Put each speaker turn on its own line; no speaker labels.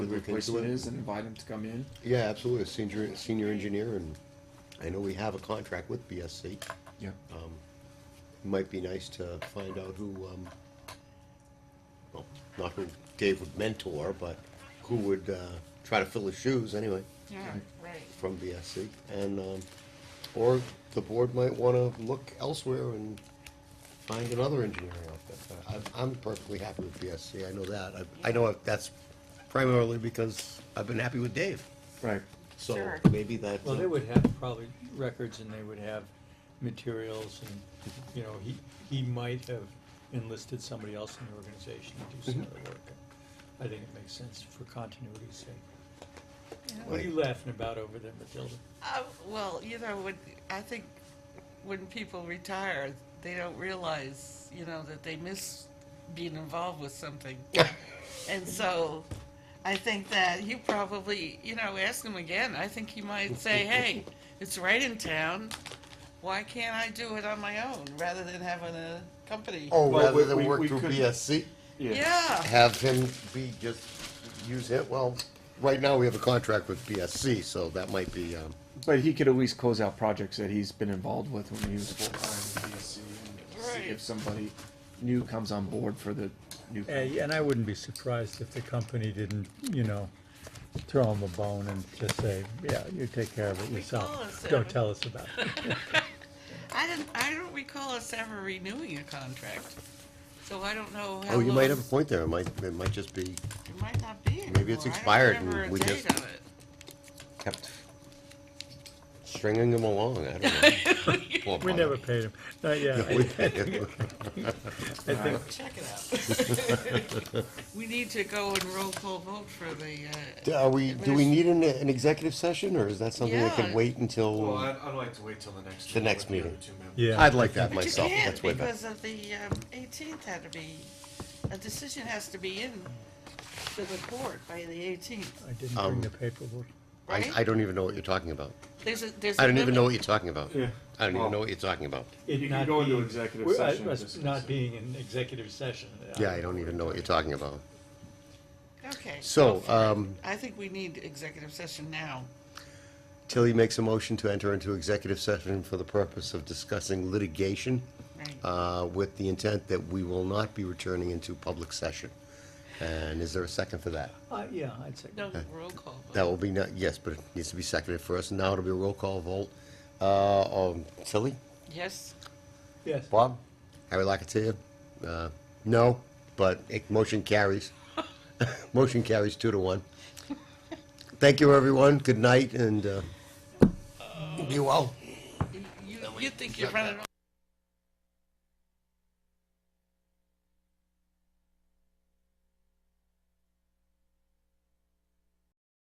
the
look into
replacement
it.
is and invite him to come in?
Yeah, absolutely, a senior, senior engineer, and I know we have a contract with BSC.
Yeah.
Oh.
Um, It Might be nice to find out who, um, well, not who Dave would mentor, but who would, uh, try to fill his shoes anyway
Yeah, right.
from BSC. And, um, or the board might wanna look elsewhere and find another engineer out there. I'm, I'm perfectly happy with BSC, I know that. I, I know that's primarily because I've been happy with Dave.
Right.
So
Sure.
maybe that.
Well, they would have probably records and they would have materials and, you know, he, he might have enlisted somebody else in the organization to do some of the work. I think it makes sense for continuity's sake. What are you laughing about over there, Matilda?
Uh, well, you know, when, I think when people retire, they don't realize, you know, that they miss being involved with something. and so I think that he probably, you know, ask him again. I think he might say, hey, it's right in town. Why can't I do it on my own rather than having a company?
Oh,
Well,
rather
we-
than
we-
work
we
through
could-
BSC,
yeah.
have him be just, use it, well, right now we have a contract with BSC, so that might be, um,
But he could at least close out projects that he's been involved with when he was full time in BSC and see
Right.
if somebody new comes on board for the new.
And I wouldn't be surprised if the company didn't, you know, throw him a bone and just say, yeah, you take care of it
call us,
yourself.
Don't
Don't
tell
tell us about it.
I didn't. I don't recall us ever renewing a contract, so I don't know. How
oh, you
long-
might have a point there, it might, it might just be
It might not be.
Maybe it's
anymore. I don't
expired
remember
and
a
we
date
just-
on it.
kept stringing him along, I don't know. Poor
We
bugger.
never paid him, not yet.
We did.
I think
Check it out. we need to go and roll call vote for the. Uh,
Do- Are we, do we need an, an executive session, or is that something that can
Yeah.
wait
Well,
until?
I'd, I'd like to wait till the next.
The
meeting
next
with the
meeting.
other two members.
Yeah.
I'd like that
but
myself,
you can't
that's way better.
because of the um, 18th had to be. A decision has to be in to the court by the 18th,
I didn't bring the paperwork.
I,
right?
I don't even know what you're talking about.
there's a, there's
I
a
don't even
limit.
know what you're talking about.
Yeah.
I don't
Well-
even know what you're talking about.
It
You can
not
go into
being-
executive
Well, I-
session
us
and discuss
Not
it.
being in executive session.
Yeah, I don't even know what you're talking about.
Okay.
So, um,
I think we need executive session now.
Tilly makes a motion to enter into executive session for the purpose of discussing litigation
Right.
uh, with the intent that we will not be returning into public session. And is there a second for that?
Uh, yeah, I'd say.
no roll call vote.
That will be, not yes, but it needs to be seconded first. Now it'll be a roll call vote. Uh, um, Tilly?
Yes.
Yes.
Bob? Harry Locatier? Uh, No, but it- motion carries. Motion carries two to one. Thank you, everyone. Good night and uh, be well.
You, you think you're running